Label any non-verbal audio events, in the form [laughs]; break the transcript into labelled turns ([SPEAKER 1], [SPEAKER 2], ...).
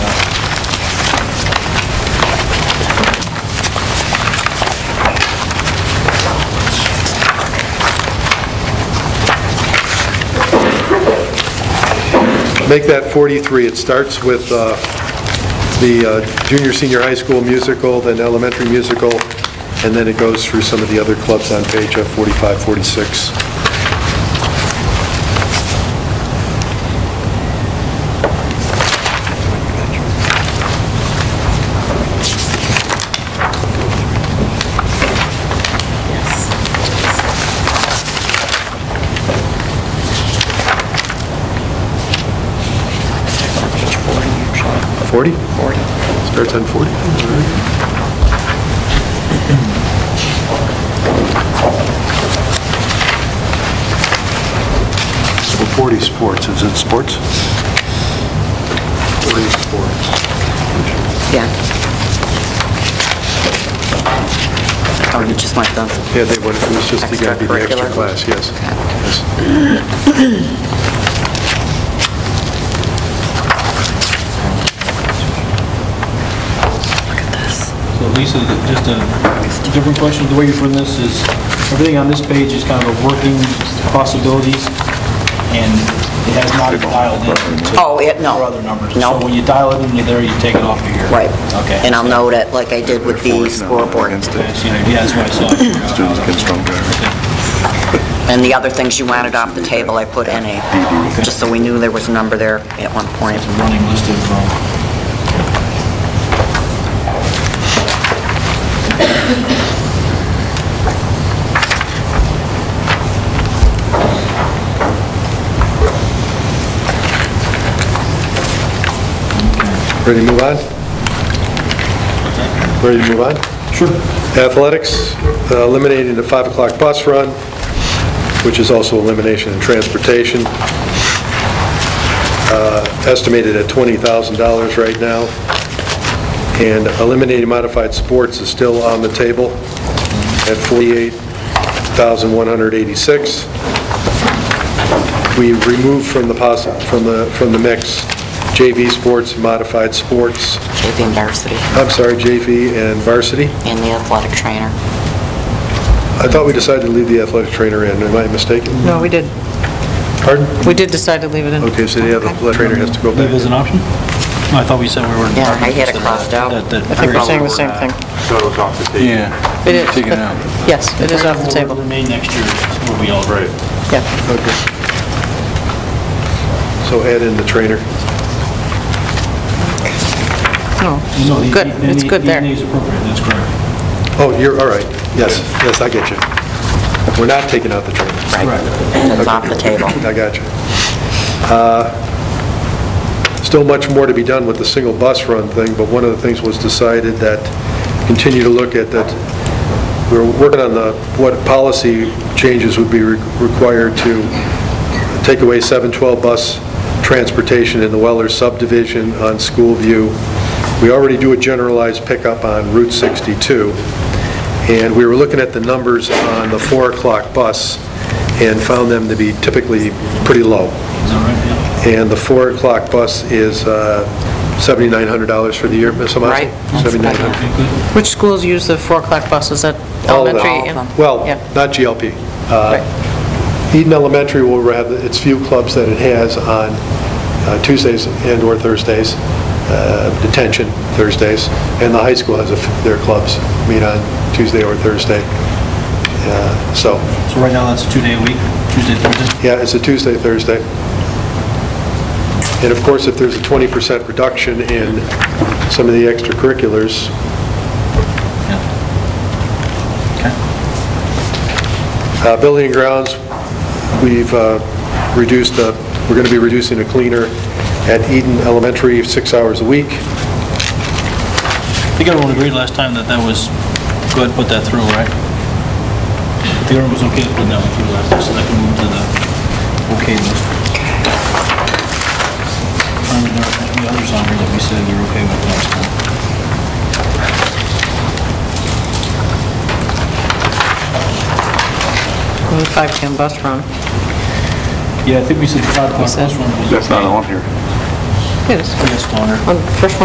[SPEAKER 1] make that 43. It starts with uh, the uh, junior, senior high school musical, then elementary musical, and then it goes through some of the other clubs on page uh, 45, 46.
[SPEAKER 2] Page 40 usually,
[SPEAKER 1] 40?
[SPEAKER 2] 40.
[SPEAKER 1] Starts on 40? So 40 sports, is it sports? 40 sports.
[SPEAKER 2] Yeah. Oh, you just want the,
[SPEAKER 1] Yeah, they would, it was just, you gotta be the extra
[SPEAKER 2] Extracurricular.
[SPEAKER 1] class, yes. Yes.
[SPEAKER 2] look at this.
[SPEAKER 3] So Lisa, just a different question, the way you're putting this is, everything on this page is kind of a working possibilities, and it has not been dialed in to
[SPEAKER 2] Oh, it, no.
[SPEAKER 3] your other numbers.
[SPEAKER 2] No.
[SPEAKER 3] So when you dial it in, you're there, you take it off of here.
[SPEAKER 2] Right.
[SPEAKER 3] Okay.
[SPEAKER 2] And I'll note it, like I did with the scoreboard.
[SPEAKER 3] Okay, so, Yeah, that's what I saw.
[SPEAKER 2] And the other things you wanted off the table, I put in
[SPEAKER 3] Mm-hmm.
[SPEAKER 2] a, just so we knew there was a number there at one point.
[SPEAKER 3] It's a running list of, um,
[SPEAKER 1] Ready to move on? Ready to move on?
[SPEAKER 3] Sure.
[SPEAKER 1] Athletics, uh, eliminating the 5 o'clock bus run, which is also elimination in transportation, uh, estimated at $20,000 right now. And eliminating modified sports is still on the table at $48,186. We removed from the possi from the, from the mix JV sports, modified sports,
[SPEAKER 2] JV and varsity,
[SPEAKER 1] I'm sorry, JV and varsity.
[SPEAKER 2] and the athletic trainer.
[SPEAKER 1] I thought we decided to leave the athletic trainer in, am I mistaken?
[SPEAKER 4] No, we did.
[SPEAKER 1] Pardon?
[SPEAKER 4] We did decide to leave it in.
[SPEAKER 1] Okay, so the athletic trainer has to go
[SPEAKER 3] leave as
[SPEAKER 1] back.
[SPEAKER 3] an option? No, I thought we said we were.
[SPEAKER 2] Yeah, I had it crossed out.
[SPEAKER 3] That- that-
[SPEAKER 4] I think we're saying the same thing.
[SPEAKER 5] Yeah.
[SPEAKER 4] It is.
[SPEAKER 5] Take it
[SPEAKER 4] but-
[SPEAKER 5] out.
[SPEAKER 4] Yes, it is off the
[SPEAKER 3] Will
[SPEAKER 4] table,
[SPEAKER 3] Remain next year, will be all right.
[SPEAKER 4] yeah.
[SPEAKER 1] Okay. So add in the trainer.
[SPEAKER 4] No,
[SPEAKER 3] No, the-
[SPEAKER 4] Good,
[SPEAKER 3] the-
[SPEAKER 4] it's
[SPEAKER 3] the-
[SPEAKER 4] good
[SPEAKER 3] the
[SPEAKER 4] there.
[SPEAKER 3] ENA is appropriate, that's correct.
[SPEAKER 1] Oh, you're, all right, yes, yes, I get you. We're not taking out the trainer.
[SPEAKER 2] That's off the table.
[SPEAKER 3] [laughs]
[SPEAKER 1] I got you. Uh, Still much more to be done with the single bus run thing, but one of the things was decided that, continue to look at that, we we're working on the, what policy changes would be re- required to take away 712 bus transportation in the Weller subdivision on School View. We already do a generalized pickup on Route 62. And we were looking at the numbers on the 4 o'clock bus and found them to be typically pretty low.
[SPEAKER 3] Is that right? Yeah.
[SPEAKER 1] And the 4 o'clock bus is uh, $7,900 for the year, Ms. Amato?
[SPEAKER 4] Right.
[SPEAKER 1] $7,900.
[SPEAKER 4] Which schools use the 4 o'clock bus, is that
[SPEAKER 1] All of them.
[SPEAKER 4] elementary? and-
[SPEAKER 1] Oh, Well,
[SPEAKER 4] Yeah,
[SPEAKER 1] not GLP.
[SPEAKER 4] right.
[SPEAKER 1] Eden Uh, Elementary will have its few clubs that it has on uh, Tuesdays and/or Thursdays, uh, detention Thursdays, and the high school has a f- their clubs meet on Tuesday or Thursday. Uh, So,
[SPEAKER 3] So right now, that's a two-day a week, Tuesday, Thursday?
[SPEAKER 1] Yeah, it's a Tuesday, Thursday. And of course, if there's a 20% reduction in some of the extracurriculars,
[SPEAKER 3] Yeah. Okay.
[SPEAKER 1] uh, building and grounds, we've uh, reduced, uh, we're going to be reducing a cleaner at Eden Elementary six hours a week.
[SPEAKER 3] I think everyone agreed last time that that was, go ahead and put that through, right? I think everyone was okay with putting that one through last time, so that can move to the okay list. Um, there are any others on here that we said we were okay with last time.
[SPEAKER 4] And the 5 p.m. bus run.
[SPEAKER 3] Yeah, I think we said five o'clock,
[SPEAKER 4] said-
[SPEAKER 3] this one was okay.
[SPEAKER 5] That's not on here.
[SPEAKER 4] It is.
[SPEAKER 3] Yes, Donner.
[SPEAKER 4] On the first one.